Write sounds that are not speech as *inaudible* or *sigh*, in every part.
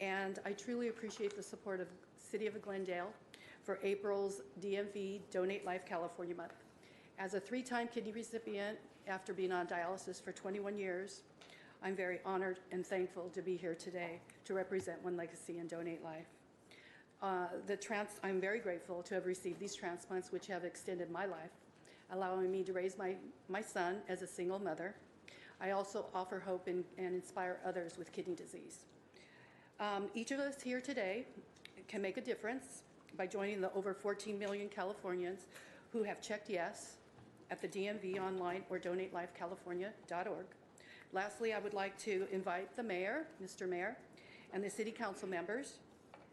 And I truly appreciate the support of City of Glendale for April's DMV Donate Life California Month. As a three-time kidney recipient after being on dialysis for 21 years, I'm very honored and thankful to be here today to represent One Legacy and Donate Life. Uh, the trans, I'm very grateful to have received these transplants, which have extended my life, allowing me to raise my, my son as a single mother. I also offer hope and, and inspire others with kidney disease. Um, each of us here today can make a difference by joining the over 14 million Californians who have checked yes at the DMV online or donatelifecalifornia.org. Lastly, I would like to invite the mayor, Mr. Mayor, and the city council members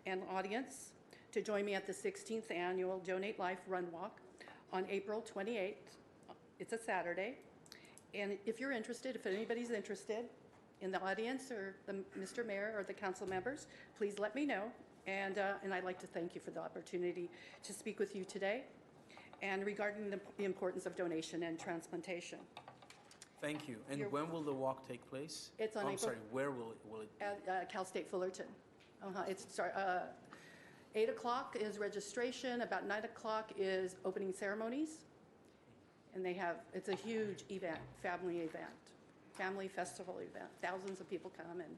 and audience to join me at the 16th annual Donate Life Run Walk on April 28th. It's a Saturday. And if you're interested, if anybody's interested in the audience or the Mr. Mayor or the council members, please let me know. And, uh, and I'd like to thank you for the opportunity to speak with you today and regarding the the importance of donation and transplantation. Thank you. And You're- when will the walk take place? Oh, It's on I'm April- sorry, where will it, will it? be? At uh, Cal State Fullerton. Uh-huh, it's, sorry, uh, 8 o'clock is registration, about 9 o'clock is opening ceremonies. And they have, it's a huge event, family event, family festival event. Thousands of people come and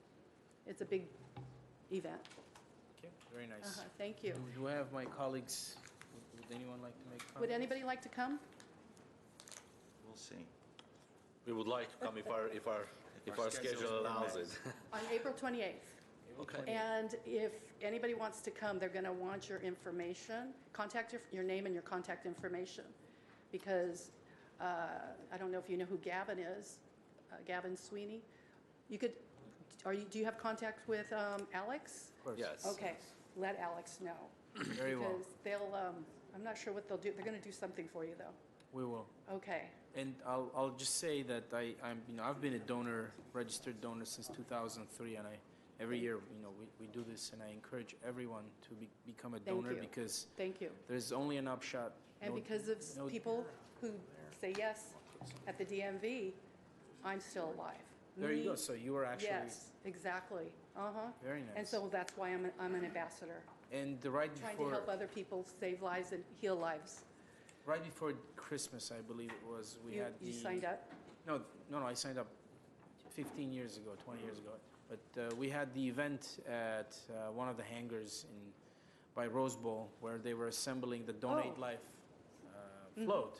it's a big event. Okay, very nice. Uh-huh, Thank Do you. do I have my colleagues, would- would anyone like to make comments? Would anybody like to come? We'll see. We would like to come if our, if our, if our schedule allows it. *laughs* On April 28th. Okay. And if anybody wants to come, they're going to want your information, contact your, your name and your contact information, because uh, I don't know if you know who Gavin is, uh, Gavin Sweeney. You could, are you, do you have contact with um, Alex? Yes. Okay, let Alex know. Very well, Because they'll, um, I'm not sure what they'll do, they're going to do something for you, though. we will. Okay, And I'll, I'll just say that I, I'm, you know, I've been a donor, registered donor since 2003, and I, every year, you know, we, we do this, and I encourage everyone to be, become a thank donor you. because Thank you. there's only an upshot. And No- because no- of people who say yes at the DMV, I'm still alive. There you go, Me, so you are actually, Yes, exactly. Uh-huh. Very And nice. so that's why I'm, an- I'm an ambassador, and the right trying to help before, other people save lives and heal lives. right before Christmas, I believe it was, we You, had the. you signed up? No, no, no, I signed up 15 years ago, 20 years ago. But uh, we had the event at uh, one of the hangars in, by Rose Bowl where they were assembling the Donate Oh. Mm-hmm. Life uh, float.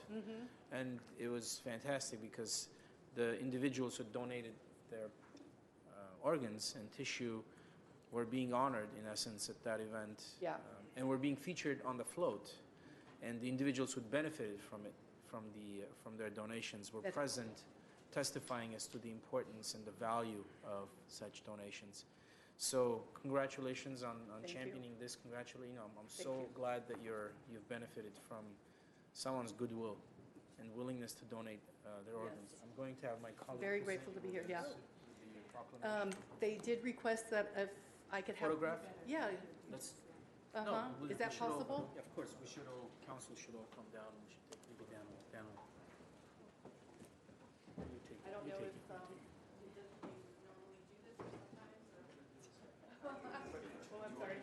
And it was fantastic because the individuals who donated their uh, organs and tissue were being honored, in essence, at that event. Yeah. Um, and were being featured on the float. And the individuals who benefited from it, from, the, uh, from their donations, were That's- present, testifying as to the importance and the value of such donations. So congratulations on, on Thank you. championing this. Congratulations. You know, I'm, I'm Thank so you. glad that you're, you've benefited from someone's goodwill and willingness to donate uh, their organs. Yes. I'm going to have my colleague. Very present grateful to be here, yeah. the proclamation. Um, They did request that if I could have. Uh-huh. Photograph? Yeah, Let's- no, uh-huh. we- Is we that should all- possible? Of course, we should all, council should all come down, we should take, maybe down, down. You take I it, don't you know take if, um, we just- we normally do this sometimes, or- *laughs* Oh, I'm sorry.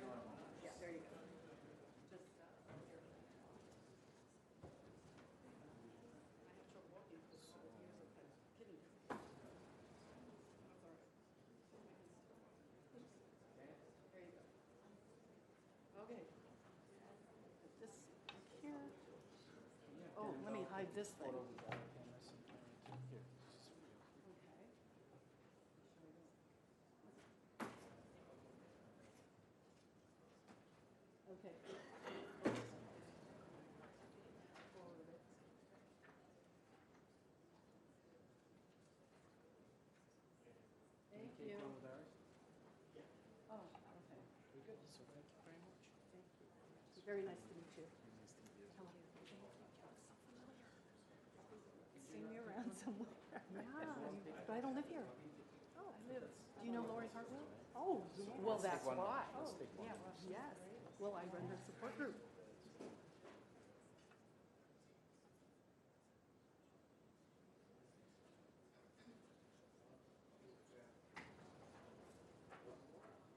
Yeah, there you go. Just, uh, here. I have trouble walking for five years of kidney disease. That's all right. There you go. Okay. This, here. Oh, let me hide this thing. it. Here, this is for you. Okay. Okay. Thank Can you you. come with ours? Oh, okay. We're good, so thank you very much. Thank you. Very nice to meet you. Nice to meet you. Hello. Seen you around somewhere. Yeah, but I don't live here. Oh, I live. Do you know Lori Hartwell? Oh, well, that's why. Oh, yeah, well, yes. Well, I run her support group.